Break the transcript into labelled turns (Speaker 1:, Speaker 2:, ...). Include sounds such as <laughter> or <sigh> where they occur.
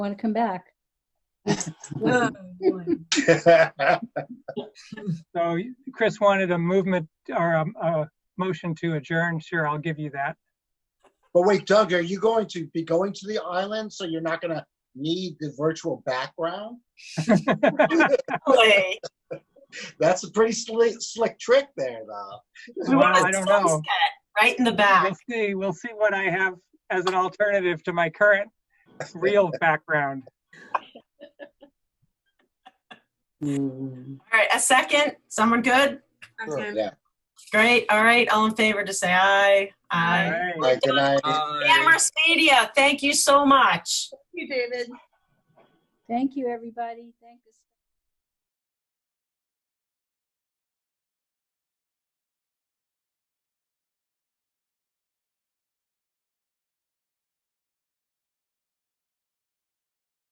Speaker 1: want to come back.
Speaker 2: Oh,
Speaker 3: <laughs>
Speaker 4: <laughs>
Speaker 2: boy.
Speaker 3: So Chris wanted a movement or a, a motion to adjourn. Sure, I'll give you that.
Speaker 4: But wait, Doug, are you going to be going to the island so you're not going to need the virtual background?
Speaker 2: Wait.
Speaker 4: That's a pretty slick, slick trick there, though.
Speaker 2: We want
Speaker 3: Well,
Speaker 2: a
Speaker 3: I don't know.
Speaker 2: sunset Right in the
Speaker 3: We'll <laughs>
Speaker 2: back.
Speaker 3: see. We'll see what I have as an alternative to my current real background.
Speaker 2: All right, a second. Someone good?
Speaker 4: Sure, yeah.
Speaker 2: Great. All right, all in favor to say aye.
Speaker 3: All
Speaker 2: Aye.
Speaker 3: right.
Speaker 4: All right, good night.
Speaker 2: Amherst Media, thank you so much.
Speaker 5: you, David.
Speaker 1: Thank you, everybody. Thank you.